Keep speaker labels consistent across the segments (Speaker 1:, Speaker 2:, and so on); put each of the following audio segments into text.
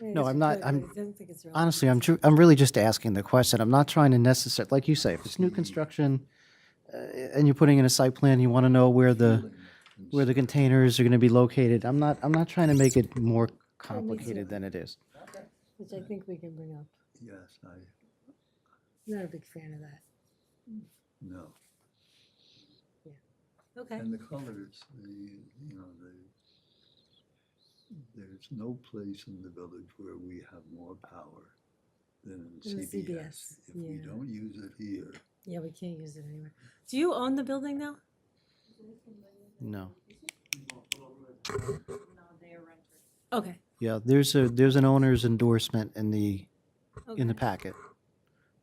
Speaker 1: No, I'm not, I'm,
Speaker 2: I don't think it's relevant.
Speaker 1: honestly, I'm, tru- I'm really just asking the question. I'm not trying to necessarily, like you say, if it's new construction uh, and you're putting in a site plan, you want to know where the, where the containers are going to be located. I'm not, I'm not trying to make it more complicated than it is.
Speaker 2: Which I think we can bring up.
Speaker 3: Yes, I,
Speaker 2: I'm Not a big fan of that.
Speaker 3: no.
Speaker 2: Okay.
Speaker 3: And the colors, the, you know, the, there's no place in the village where we have more power than in
Speaker 2: In the
Speaker 3: CBS.
Speaker 2: CBS,
Speaker 3: If we
Speaker 2: yeah.
Speaker 3: don't use it here,
Speaker 2: Yeah, we can't use it anywhere. Do you own the building now?
Speaker 1: No.
Speaker 2: Okay.
Speaker 1: Yeah, there's a, there's an owner's endorsement in the, in the
Speaker 2: okay.
Speaker 1: packet.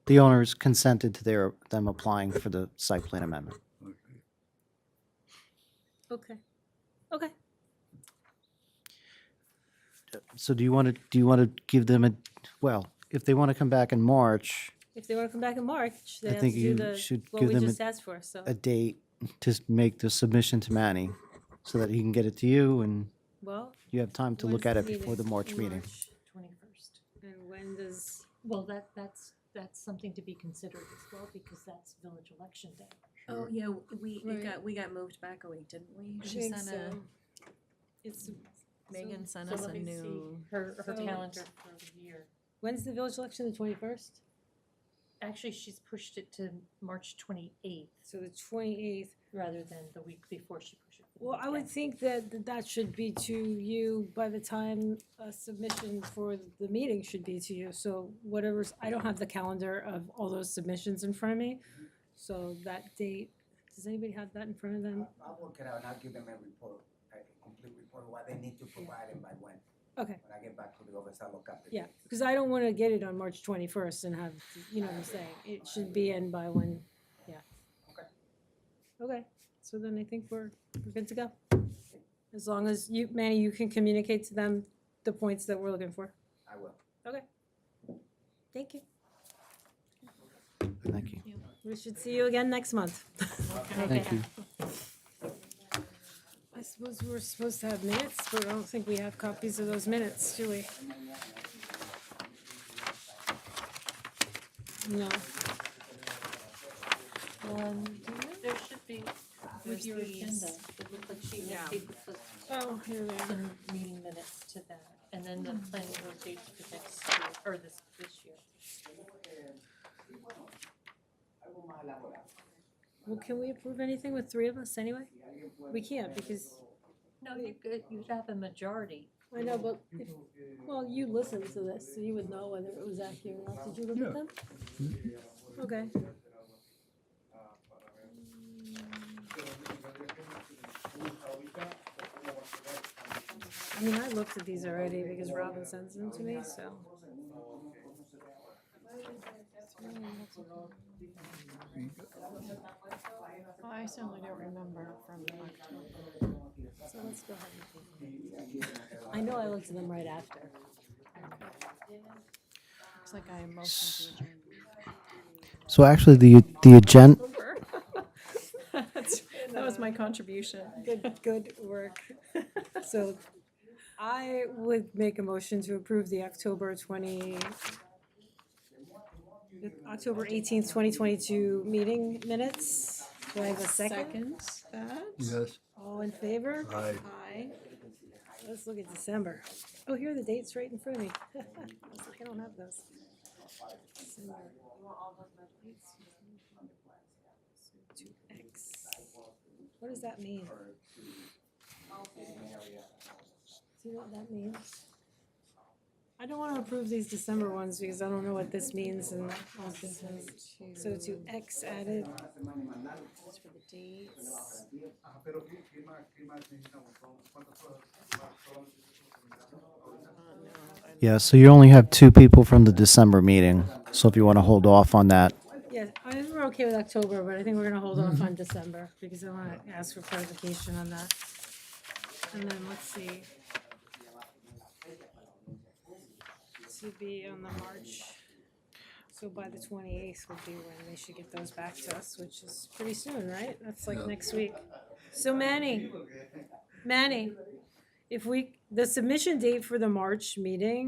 Speaker 1: The owners consented to their, them applying for the site plan amendment.
Speaker 3: okay,
Speaker 2: Okay. Okay.
Speaker 1: So do you want to, do you want to give them a, well, if they want to come back in March,
Speaker 2: If they want to come back in March,
Speaker 1: I
Speaker 2: they have to
Speaker 1: think
Speaker 2: do
Speaker 1: you
Speaker 2: the,
Speaker 1: should
Speaker 2: what
Speaker 1: give
Speaker 2: we
Speaker 1: them a-
Speaker 2: just asked for, so.
Speaker 1: a date to s- make the submission to Manny so that he can get it to you and
Speaker 2: Well.
Speaker 1: you have time to
Speaker 2: when's
Speaker 1: look at
Speaker 2: the
Speaker 1: it before the March meeting.
Speaker 4: Twenty-first.
Speaker 2: And when does,
Speaker 4: Well, that, that's, that's something to be considered as well, because that's village election day.
Speaker 5: Oh, yeah, w- we,
Speaker 2: Right.
Speaker 5: it got, we got moved back a week, didn't we?
Speaker 2: I
Speaker 5: She
Speaker 2: think
Speaker 5: sent a,
Speaker 2: so. It's,
Speaker 5: Megan sent
Speaker 4: so
Speaker 5: us
Speaker 4: let
Speaker 5: a
Speaker 4: me see.
Speaker 5: new,
Speaker 4: Her, her
Speaker 2: So-
Speaker 4: calendar for the year.
Speaker 2: when's the village election, the twenty-first?
Speaker 4: Actually, she's pushed it to March twenty-eighth
Speaker 2: So the twenty-eighth.
Speaker 4: rather than the week before she pushed it.
Speaker 2: Well, I would think that th- that should be to you by the time a submission for the meeting should be to you. So whatever's, I don't have the calendar of all those submissions in front of me. So that date, does anybody have that in front of them?
Speaker 6: I- I'll work it out and I'll give them a report, a complete report, what they need to provide and by when.
Speaker 2: Okay,
Speaker 6: When I get back to the office, I'll look up the
Speaker 2: yeah,
Speaker 6: dates.
Speaker 2: because I don't want to get it on March twenty-first and have, you know what I'm saying? It should be in by when, yeah.
Speaker 6: Okay.
Speaker 2: Okay, so then I think we're, we're good to go. As long as you, Manny, you can communicate to them the points that we're looking for.
Speaker 6: I will.
Speaker 2: Okay. Thank you.
Speaker 1: Thank you.
Speaker 2: We should see you again next month.
Speaker 1: Thank you.
Speaker 2: I suppose we were supposed to have minutes, but I don't think we have copies of those minutes, do we? No.
Speaker 5: um,
Speaker 4: There should be,
Speaker 5: There's
Speaker 4: with your
Speaker 5: these.
Speaker 4: agenda, it looked like she
Speaker 5: Yeah.
Speaker 4: had gave us
Speaker 2: Oh, here they are.
Speaker 4: some meeting minutes to that, and then the
Speaker 5: Hmm.
Speaker 4: planning board dates for next year, or this, this year.
Speaker 2: Well, can we approve anything with three of us anyway? We can't because,
Speaker 4: No, you could, you'd have a majority.
Speaker 2: I know, but if, well, you listened to this, so you would know whether it was accurate or not. Did you look
Speaker 3: Yeah.
Speaker 2: at them? Okay. I mean, I looked at these already because Robin sends them to me, so.
Speaker 5: Oh, I certainly don't remember from October.
Speaker 2: So let's go ahead and. I know I looked at them right after.
Speaker 5: It's like I motioned to adjourn.
Speaker 1: So actually, the, the agenda,
Speaker 5: That was my contribution.
Speaker 2: uh, Good, good work. So I would make a motion to approve the October twenty, the October eighteenth, twenty twenty-two meeting minutes. Do I have a second?
Speaker 5: Second that.
Speaker 3: yes,
Speaker 2: All in favor?
Speaker 3: I,
Speaker 5: Aye.
Speaker 2: Let's look at December. Oh, here are the dates right in front of me. I was like, I don't have those. December. Two X. What does that mean? Do you know what that means? I don't wanna approve these December ones because I don't know what this means and all this is. So to X added,
Speaker 5: That's for the dates.
Speaker 1: yeah, so you only have two people from the December meeting. So if you want to hold off on that,
Speaker 2: yeah, I think we're okay with October, but I think we're gonna hold off on December because I wanna ask for clarification on that. And then let's see. To be on the March, so by the twenty-eighth would be when they should get those back to us, which is pretty soon, right? That's like
Speaker 3: Yeah.
Speaker 2: next week. So Manny, Manny, if we, the submission date for the March meeting